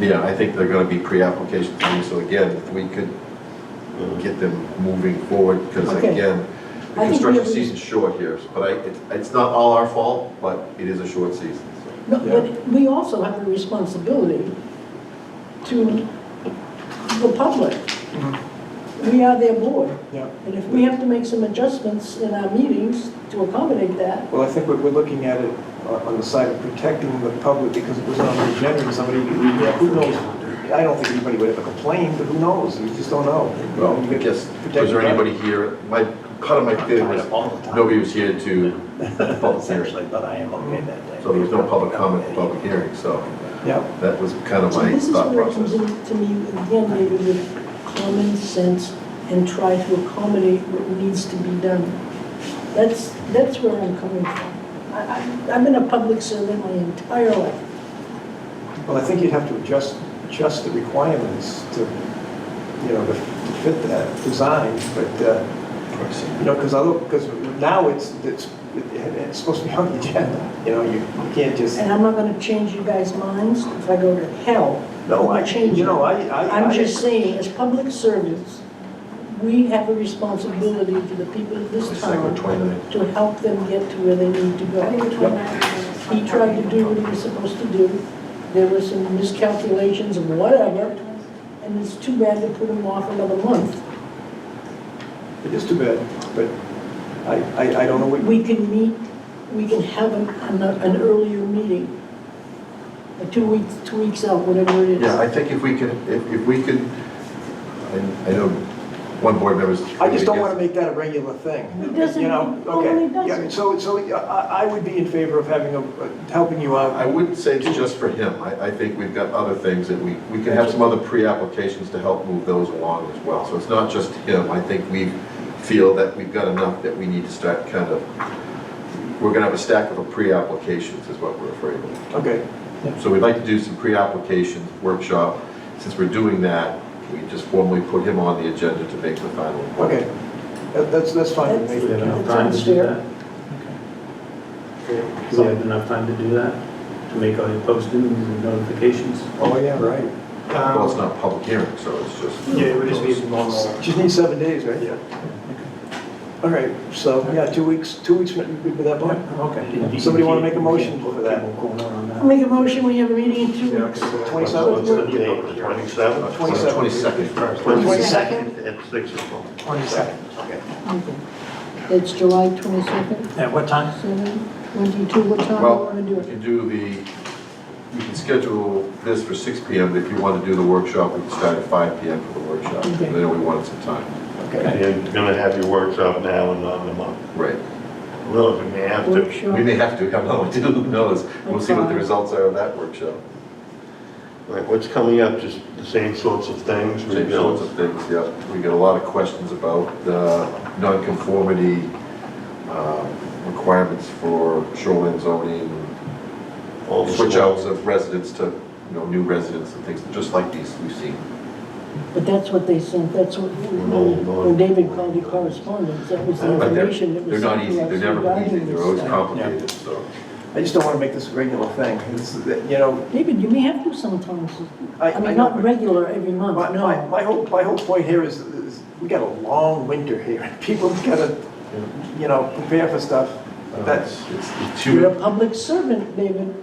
Yeah, I think they're gonna be pre-application things, so again, if we could get them moving forward, because Okay. again, the I think we construction have- season's short here, but I, it's, it's not all our fault, but it is a short season. so. No, But we also have a responsibility to the public. We are their board, Yeah, and if we have to make some adjustments in our meetings to accommodate that, well, I think we're, we're looking at it on on the side of protecting the public because it was on the agenda and somebody, who knows? I don't think anybody would ever complain, but who knows? We just don't know. Well, You I get guess, was protected there by- anybody here, my, part of my feeling was, nobody was here to, public Essentially, but I am okay that day. so there was no public comment, and public hearing, so Yeah, that was kind of so my this is thought where it comes process. in to me, again, maybe with common sense and try to accommodate what needs to be done. That's, that's where I'm coming from. I, I, I've been a public servant my entire life. well, I think you'd have to adjust, adjust the requirements to, you know, to to fit that design, but, uh, You know, because I look, because now it's, it's, it's supposed to be on the agenda, you know, you you can't just, And I'm not gonna change you guys' minds if I go to hell. no, I, I'll change you know, it. I, I. I'm I- just saying, as public servants, we have a responsibility to the people of this It's like we're town 29. to help them get to where they need to I think go. the 29th He tried to do what he was supposed to do. There were some miscalculations and whatever, and it's too bad to put him off another month. It is too bad, but I, I, I don't know what. We can meet, we can have an, an an earlier meeting, Uh, two weeks, two weeks out, whatever it is. Yeah, I think if we could, if, if we could, I, I know one board member's. I just don't want to make that a regular thing. It doesn't- You know, it okay. totally doesn't. Yeah, So, so I, I would be in favor of having a, helping you out. I wouldn't say it's just for him. I, I think we've got other things that we, we can have some other pre-applications to help move those along as well. So it's not just him. I think we feel that we've got enough that we need to start kind of, we're gonna have a stack of pre-applications is what we're afraid of. Okay, So we'd like to do some pre-applications workshop. Since we're doing that, we just formally put him on the agenda to make the final. okay. That- That's, that's fine. with me. That's- You had enough time to do That's that? Okay. You had enough time to do that, to make all your postings and notifications? Oh, yeah, right. Well, it's Um, not a public hearing, so it's just. Uh, Yeah, it would just be a normal. Just need seven days, right? Yeah. All right, so, yeah, two weeks, two weeks with that point? Okay. Somebody wanna make a motion for that? People going on that. Make a motion, we have a meeting in two weeks. What's the 27th? date? The 27th? Twenty-seven. Twenty-second. 22nd? At 6 o'clock. 22nd, okay. It's July 22nd, At what time? 7, 22, what time do you Well- want We to do it? can do the, we can schedule this for six P M, but if you want to do the workshop, we can start at five P M for the workshop. I Okay. know we wanted some time. Okay. You're going to have your workshop now and on the month. Right. Well, we may have to. We Workshop. may have to, I don't know, what to do, who knows? We'll see what the results are of that workshop. Like, what's coming up, just the same sorts of things? Same sorts of things, yeah. We get a lot of questions about uh, nonconformity um, requirements for shoreline zoning, All the switch small- outs of residents to, you know, new residents and things, just like these we've seen. But that's what they sent, that's what, when David called the correspondence, that was the But they're, information that they're was not sent easy, to us they're never easy, regarding they're always this. complicated, so. I just don't want to make this a regular thing. It's, you know, David, you may have to sometimes, I. I mean, not know- regular every month, My, my, no. my whole, my whole point here is, is we got a long winter here. People gotta, you know, prepare for stuff. That's, It's the You're two, a public servant, David.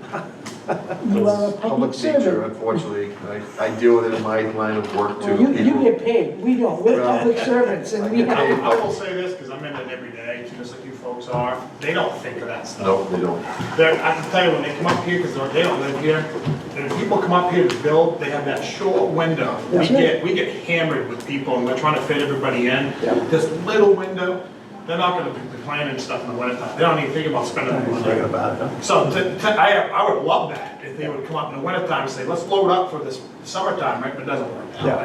You are a public public teacher, servant. unfortunately, I, I deal with it in my line of work too. You, you People- get paid, we don't, we're Well, public servants, I and we get have, paid, I will say this, because I'm in it every day, just like you folks are, they don't think of that stuff. No, they don't. They're, I can tell you, when they come up here, because they don't live here, and when people come up here to build, they have that short window. We That's right. get, we get hammered with people, and we're trying to fit everybody in. Yeah. This little window, they're not gonna be planning stuff in the wintertime, they don't even think about spending the money. So to, to, I, I would love that, if they would come up in the wintertime and say, let's load up for this summertime, right, but it doesn't work Yeah. that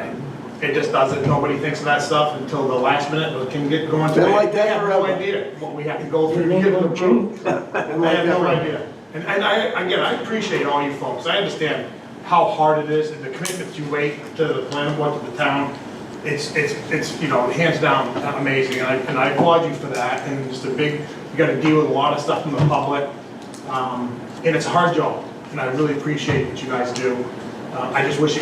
way. It just doesn't, nobody thinks of that stuff until the last minute, but can get going. Been like that I have no forever. idea what we have to go Your through to name get it won't approved. I I like have no that. idea. And, and I, again, I appreciate all you folks, I understand how hard it is, and the commitments you make to the planning board, to the town. It's, it's, it's, you know, hands down, amazing, and I, and I applaud you for that, and just a big, you gotta deal with a lot of stuff from the public. Um, and it's a hard job, and I really appreciate what you guys do. Uh, I just wish it